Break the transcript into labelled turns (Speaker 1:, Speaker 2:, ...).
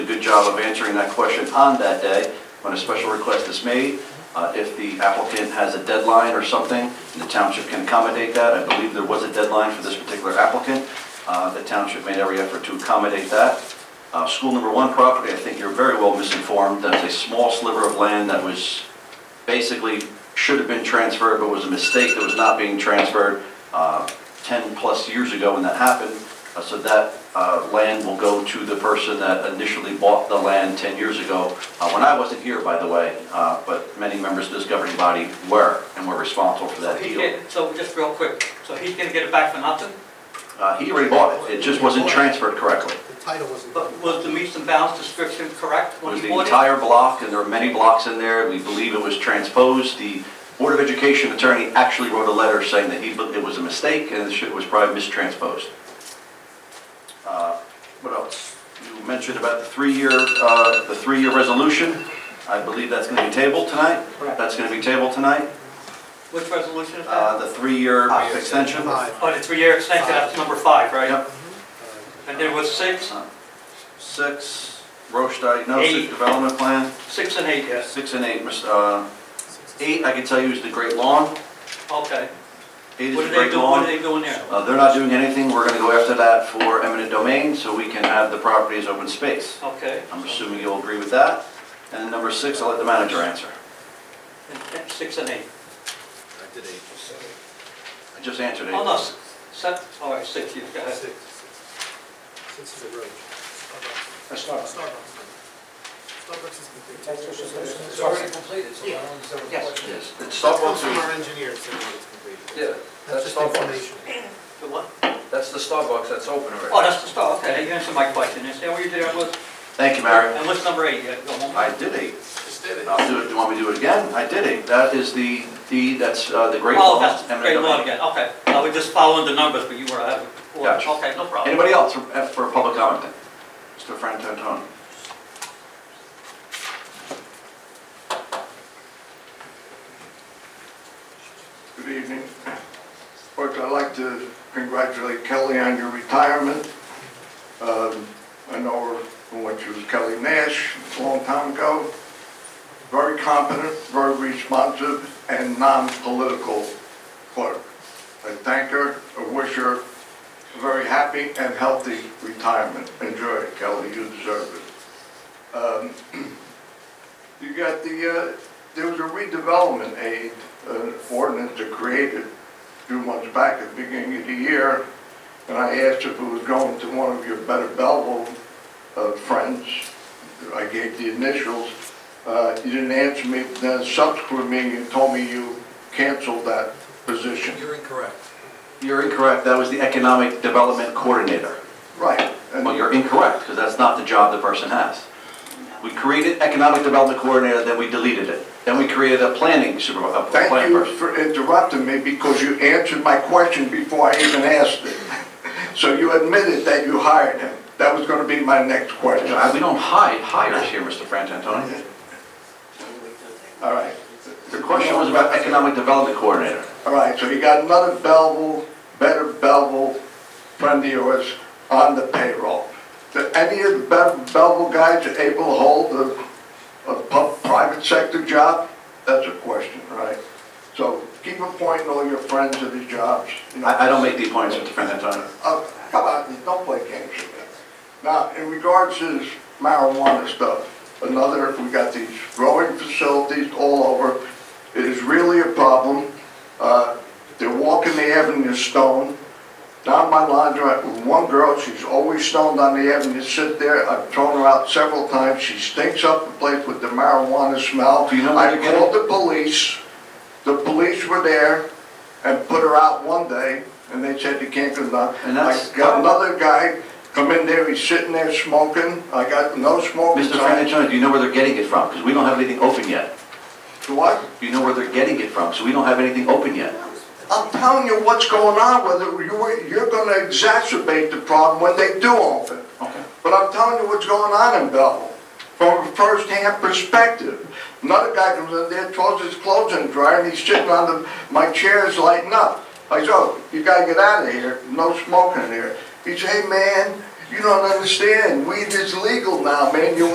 Speaker 1: job of answering that question on that day when a special request is made. Uh, If the applicant has a deadline or something, and the township can accommodate that, I believe there was a deadline for this particular applicant, uh, the township made every effort to accommodate that. Uh, School number one property, I think you're very well misinformed, that's a small sliver of land that was basically should have been transferred, but was a mistake that was not being transferred uh, 10-plus years ago when that happened. Uh, So that uh, land will go to the person that initially bought the land 10 years ago, uh, when I wasn't here, by the way, uh, but many members of this governing body were, and were responsible for that
Speaker 2: He
Speaker 1: deal.
Speaker 2: can- So just real quick, so he's gonna get it back for nothing?
Speaker 1: Uh, He already bought it, it just wasn't transferred correctly.
Speaker 3: The title wasn't.
Speaker 2: But was the meets and bounds description correct
Speaker 1: It
Speaker 2: when
Speaker 1: was
Speaker 2: he
Speaker 1: the
Speaker 2: bought it?
Speaker 1: entire block, and there are many blocks in there. We believe it was transposed. The Board of Education attorney actually wrote a letter saying that he, it was a mistake and it was probably mistransposed. Uh, What else? You mentioned about the three-year, uh, the three-year resolution. I believe that's going to be tabled tonight.
Speaker 2: Correct.
Speaker 1: That's going to be tabled tonight,
Speaker 2: Which resolution is
Speaker 1: Uh,
Speaker 2: that?
Speaker 1: the
Speaker 3: Ah,
Speaker 1: three-year extension.
Speaker 3: Five.
Speaker 2: Oh, the three-year extension, that's number five, right?
Speaker 1: Yep.
Speaker 2: And there was six,
Speaker 1: Six, Roche Diagnostic
Speaker 2: Eight.
Speaker 1: Development Plan,
Speaker 2: six and eight, yes,
Speaker 1: six and eight. Mr. uh, Eight, I can tell you, is the Great Lawn.
Speaker 2: okay.
Speaker 1: Eight is
Speaker 2: What
Speaker 1: the
Speaker 2: do they
Speaker 1: Great
Speaker 2: do, what
Speaker 1: Lawn.
Speaker 2: do they do in there?
Speaker 1: Uh, They're not doing anything, we're gonna go after that for eminent domain, so we can have the property as open space.
Speaker 2: Okay.
Speaker 1: I'm assuming you'll agree with that. And number six, I'll let the manager answer.
Speaker 2: And- and Six and eight.
Speaker 1: I just answered
Speaker 2: Oh, no,
Speaker 1: it.
Speaker 2: s- seven, all right, six, you, go ahead.
Speaker 3: Six. Six is a road. Starbucks.
Speaker 4: Starbucks.
Speaker 3: Starbucks. Starbucks is complete.
Speaker 4: That's just, it's already completed, so I don't understand what the
Speaker 2: Yes.
Speaker 4: question is.
Speaker 1: Yes, it's
Speaker 3: That comes from
Speaker 1: Starbucks.
Speaker 3: our engineer, so it's completed.
Speaker 5: Yeah,
Speaker 3: That's
Speaker 5: that's
Speaker 3: just
Speaker 5: Starbucks.
Speaker 3: information.
Speaker 2: The what?
Speaker 5: That's the Starbucks that's open already.
Speaker 2: Oh, that's the start, okay, you answered my question, is that what you did, I was,
Speaker 1: Thank you, Mary.
Speaker 2: and what's number eight, you go home?
Speaker 1: I did eight.
Speaker 3: Just did it.
Speaker 1: I'll do it, you want me to do it again? I did eight. That is the, the, that's uh, the Great
Speaker 2: Oh,
Speaker 1: Lawn.
Speaker 2: that's
Speaker 1: eminent
Speaker 2: great law
Speaker 1: domain.
Speaker 2: again, okay. I was just following the numbers, but you were out of order.
Speaker 1: Gotcha.
Speaker 2: Okay, no problem.
Speaker 1: Anybody else for uh, for a public comment? then? Mr. Frantantoni?
Speaker 6: Good evening. First, I'd like to congratulate Kelly on your retirement. Um, I know her from when she was Kelly Nash, a long time ago. Very competent, very responsive, and non-political clerk. I thank her, I wish her a very happy and healthy retirement. Enjoy it, Kelly, you deserve it. Um, You got the, uh, there was a redevelopment aid, an ordinance that created a few months back at the beginning of the year, and I asked if it was going to one of your better Belleville uh, friends. I gave the initials. Uh, You didn't answer me, then subsequent meeting, you told me you canceled that position.
Speaker 5: You're incorrect.
Speaker 1: You're incorrect, that was the Economic Development Coordinator.
Speaker 6: Right. and-
Speaker 1: Well, you're incorrect, because that's not the job the person has. We created economic development coordinator, then we deleted it. Then we created a planning supervisor, a
Speaker 6: Thank
Speaker 1: plan
Speaker 6: you
Speaker 1: person.
Speaker 6: for interrupting me because you answered my question before I even asked it. So you admitted that you hired him. That was going to be my next question.
Speaker 1: Uh, We don't hide hires here, Mr. Frantantoni.
Speaker 6: All right,
Speaker 1: Your question was about economic development coordinator.
Speaker 6: all right, so you got another Belleville, better Belleville friend of yours on the payroll. Do any of the Be- Belleville guys able to hold a, a pu- private sector job? That's a question, right? So keep appointing all your friends to these jobs. you know.
Speaker 1: I, I don't make the appointments, Mr. Frantantoni.
Speaker 6: Uh, come on, don't play games with that. Now, in regards to this marijuana stuff, another, we got these growing facilities all over. It is really a problem. Uh, they're walking the avenue stone. Down my laundrette with one girl, she's always stoned on the avenue, sit there. I've thrown her out several times. She stinks up the place with the marijuana smell.
Speaker 1: Do you know where
Speaker 6: I
Speaker 1: they're getting-
Speaker 6: called the police. The police were there and put her out one day, and they said you can't go down.
Speaker 1: And that's-
Speaker 6: I got another guy come in there, he's sitting there smoking, I got no smoking
Speaker 1: Mr.
Speaker 6: signs.
Speaker 1: Frantantoni, do you know where they're getting it from? Because we don't have anything open yet.
Speaker 6: What?
Speaker 1: Do you know where they're getting it from? So we don't have anything open yet.
Speaker 6: I'm telling you what's going on with it, You- you're gonna exacerbate the problem when they do open.
Speaker 1: Okay.
Speaker 6: But I'm telling you what's going on in Belleville, from a first-hand perspective. Another guy comes in there, throws his clothes in the dryer, and he's sitting on the, my chair is lighting up. I said, "Oh, you gotta get out of here, no smoking in here." He said, "Hey, man, you don't understand, weed is legal now, man, you